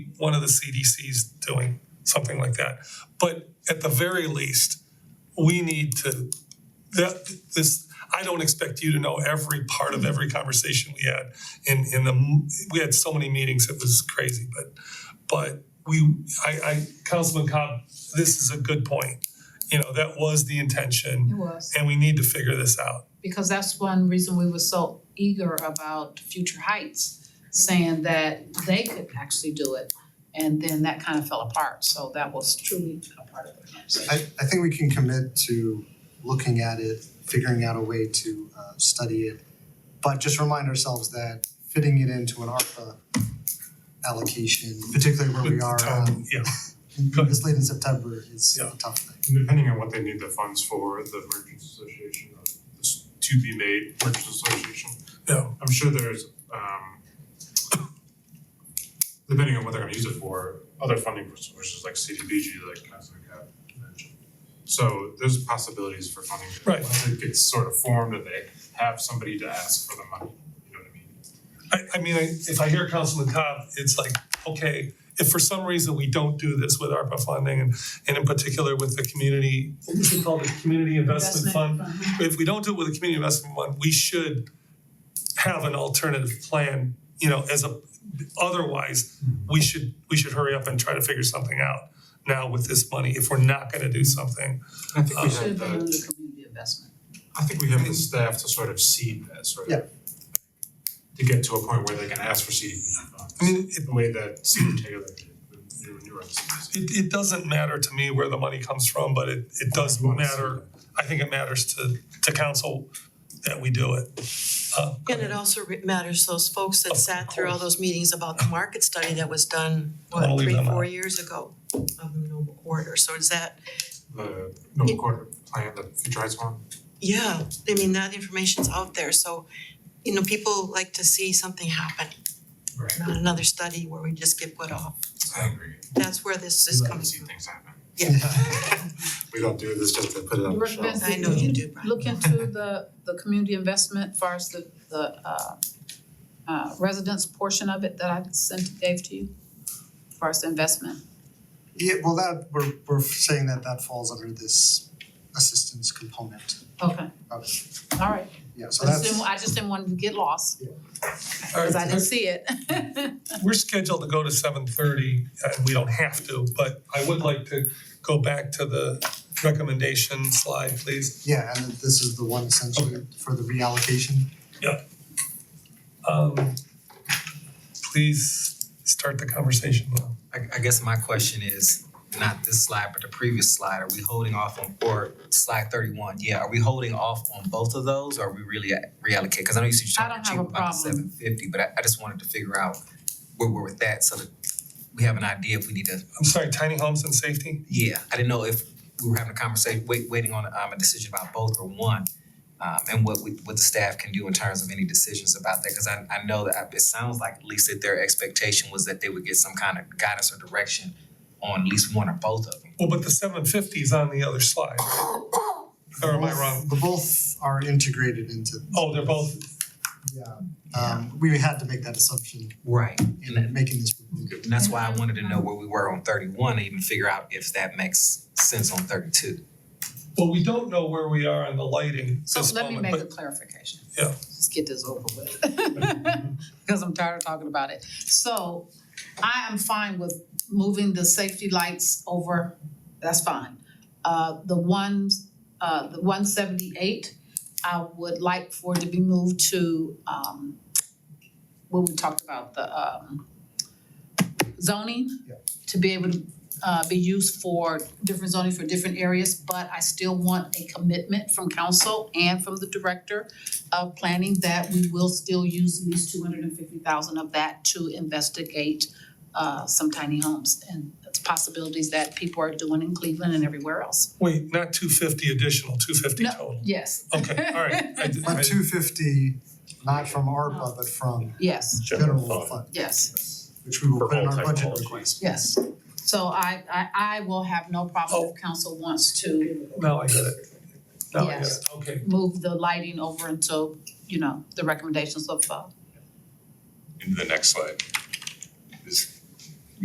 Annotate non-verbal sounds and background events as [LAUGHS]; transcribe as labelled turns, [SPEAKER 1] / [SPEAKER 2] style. [SPEAKER 1] one of the CDCs doing something like that. But at the very least, we need to, that, this, I don't expect you to know every part of every conversation we had. In, in the, m- we had so many meetings, it was crazy, but, but we, I, I, Councilman Cobb, this is a good point. You know, that was the intention,
[SPEAKER 2] It was,
[SPEAKER 1] and we need to figure this out.
[SPEAKER 2] because that's one reason we were so eager about Future Heights, saying that they could actually do it. And then that kind of fell apart, so that was truly a part of the conversation.
[SPEAKER 3] I I think we can commit to looking at it, figuring out a way to uh study it. But just remind ourselves that fitting it into an ARPA allocation, particularly where we
[SPEAKER 1] With the
[SPEAKER 3] are
[SPEAKER 1] time,
[SPEAKER 3] um
[SPEAKER 1] Yeah, Go ahead.
[SPEAKER 3] this late in September is
[SPEAKER 1] Yeah.
[SPEAKER 3] a tough thing. [LAUGHS]
[SPEAKER 4] Depending on what they need the funds for, the merchants association, or this to be made merchants association,
[SPEAKER 1] yeah.
[SPEAKER 4] I'm sure there's um depending on what they're gonna use it for, other funding sources like CDBG, like Councilman Cap mentioned. So there's possibilities for funding. that
[SPEAKER 1] Right.
[SPEAKER 4] Once it gets sort of formed and they have somebody to ask for the money, you know what I mean?
[SPEAKER 1] I, I mean, I, if I hear Councilman Cobb, it's like, okay, if for some reason we don't do this with ARPA funding and, and in particular with the community, what was it called, the community investment fund? If we don't do it with the community investment fund, we should have an alternative plan, you know, as a, otherwise, we should, we should hurry up and try to figure something out now with this money, if we're not gonna do something.
[SPEAKER 4] I think
[SPEAKER 1] we have
[SPEAKER 4] we
[SPEAKER 2] Should um, have
[SPEAKER 4] have
[SPEAKER 2] been under
[SPEAKER 4] the,
[SPEAKER 2] community investment.
[SPEAKER 4] I think we have the staff to sort of seed this, right?
[SPEAKER 3] Yeah.
[SPEAKER 4] To get to a point where they can ask for CDBG funds.
[SPEAKER 1] I mean, it,
[SPEAKER 4] the way that Steve Taylor did when you when you were on the CDC.
[SPEAKER 1] it, it doesn't matter to me where the money comes from, but it, it does matter, I think it matters to, to council that we do it. Uh, go
[SPEAKER 5] And it
[SPEAKER 1] ahead.
[SPEAKER 5] also re- matters those folks that
[SPEAKER 1] Of
[SPEAKER 5] sat through all
[SPEAKER 1] course.
[SPEAKER 5] those meetings about the market study that was done,
[SPEAKER 1] I'll
[SPEAKER 5] what,
[SPEAKER 1] leave
[SPEAKER 5] three,
[SPEAKER 1] them
[SPEAKER 5] four
[SPEAKER 1] out.
[SPEAKER 5] years ago of the Noble Corridor, so is that,
[SPEAKER 4] the Noble Quarter plan, the future heights one.
[SPEAKER 5] yeah, I mean, that information's out there, so, you know, people like to see something happen,
[SPEAKER 4] Right.
[SPEAKER 5] not another study where we just get put off.
[SPEAKER 4] I agree.
[SPEAKER 5] That's where this
[SPEAKER 4] We
[SPEAKER 5] is
[SPEAKER 4] like to
[SPEAKER 5] coming
[SPEAKER 4] see
[SPEAKER 5] from.
[SPEAKER 4] things happen.
[SPEAKER 5] Yeah.
[SPEAKER 4] We don't do this just to put it on the
[SPEAKER 2] Rick
[SPEAKER 4] shelf.
[SPEAKER 2] Benson.
[SPEAKER 5] I know you do, Brian.
[SPEAKER 2] Look into the, the community investment as far as the, the, uh, uh, residence portion of it that I sent, gave to you, as far as the investment.
[SPEAKER 3] Yeah, well, that we're we're saying that that falls under this assistance component
[SPEAKER 2] Okay,
[SPEAKER 3] of it.
[SPEAKER 2] all right.
[SPEAKER 3] Yeah,
[SPEAKER 2] I
[SPEAKER 3] so
[SPEAKER 2] just
[SPEAKER 3] that's
[SPEAKER 2] didn't, I just didn't want to get lost,
[SPEAKER 1] All
[SPEAKER 2] cause I didn't
[SPEAKER 1] right,
[SPEAKER 2] see it. [LAUGHS]
[SPEAKER 1] we're scheduled to go to seven thirty, and we don't have to, but I would like to go back to the recommendation slide, please.
[SPEAKER 3] yeah, and this is the one essentially for the reallocation.
[SPEAKER 1] Um, please start the conversation now.
[SPEAKER 6] I, I guess my question is, not this slide, but the previous slide, are we holding off on, or slide thirty-one, yeah, are we holding off on both of those, or are we really at- reallocate? Cause I know you said
[SPEAKER 2] I
[SPEAKER 6] you're trying
[SPEAKER 2] don't have
[SPEAKER 6] to achieve
[SPEAKER 2] a
[SPEAKER 6] about
[SPEAKER 2] problem.
[SPEAKER 6] seven fifty, but I, I just wanted to figure out where we're with that, so that we have an idea if we need to,
[SPEAKER 1] I'm sorry, tiny homes and safety?
[SPEAKER 6] yeah, I didn't know if we were having a conversation, wait, waiting on, um, a decision about both or one, um, and what we, what the staff can do in terms of any decisions about that, cause I, I know that, I- it sounds like at least that their expectation was that they would get some kind of guidance or direction on at least one or both of them.
[SPEAKER 1] Well, but the seven fifty is on the other slide. Or am I wrong?
[SPEAKER 3] The both are integrated into
[SPEAKER 1] Oh, they're both,
[SPEAKER 3] Yeah, um we had to make that assumption
[SPEAKER 6] Right. And
[SPEAKER 3] in
[SPEAKER 6] that-
[SPEAKER 3] making this proposal.
[SPEAKER 6] and that's why I wanted to know where we were on thirty-one, and even figure out if that makes sense on thirty-two.
[SPEAKER 1] well, we don't know where we are on the lighting
[SPEAKER 2] So
[SPEAKER 1] this
[SPEAKER 2] Oh, let me
[SPEAKER 1] moment,
[SPEAKER 2] make
[SPEAKER 1] but
[SPEAKER 2] a clarification.
[SPEAKER 1] Yeah.
[SPEAKER 2] Let's get this over with. [LAUGHS] Because I'm tired of talking about it. So I am fine with moving the safety lights over, that's fine. Uh, the ones, uh, the one seventy-eight, I would like for it to be moved to, um, when we talked about the, um, zoning.
[SPEAKER 3] Yeah.
[SPEAKER 2] To be able to, uh, be used for different zoning for different areas, but I still want a commitment from council and from the director of planning that we will still use at least two hundred and fifty thousand of that to investigate uh some tiny homes and the possibilities that people are doing in Cleveland and everywhere else.
[SPEAKER 1] wait, not two fifty additional, two fifty
[SPEAKER 2] No.
[SPEAKER 1] total.
[SPEAKER 2] Yes.
[SPEAKER 1] Okay, all right. I did- I-
[SPEAKER 3] But two fifty, not from ARPA, but from
[SPEAKER 2] Yes,
[SPEAKER 3] general fund,
[SPEAKER 2] yes,
[SPEAKER 3] which we will
[SPEAKER 4] For
[SPEAKER 3] put in
[SPEAKER 4] all
[SPEAKER 3] our budget
[SPEAKER 4] technologies.
[SPEAKER 3] request.
[SPEAKER 2] yes. So I I I will have no problem if council wants to
[SPEAKER 1] Now I get it. Now I get
[SPEAKER 2] Yes.
[SPEAKER 1] it, okay.
[SPEAKER 2] move the lighting over until, you know, the recommendations of uh
[SPEAKER 7] into the next slide. Is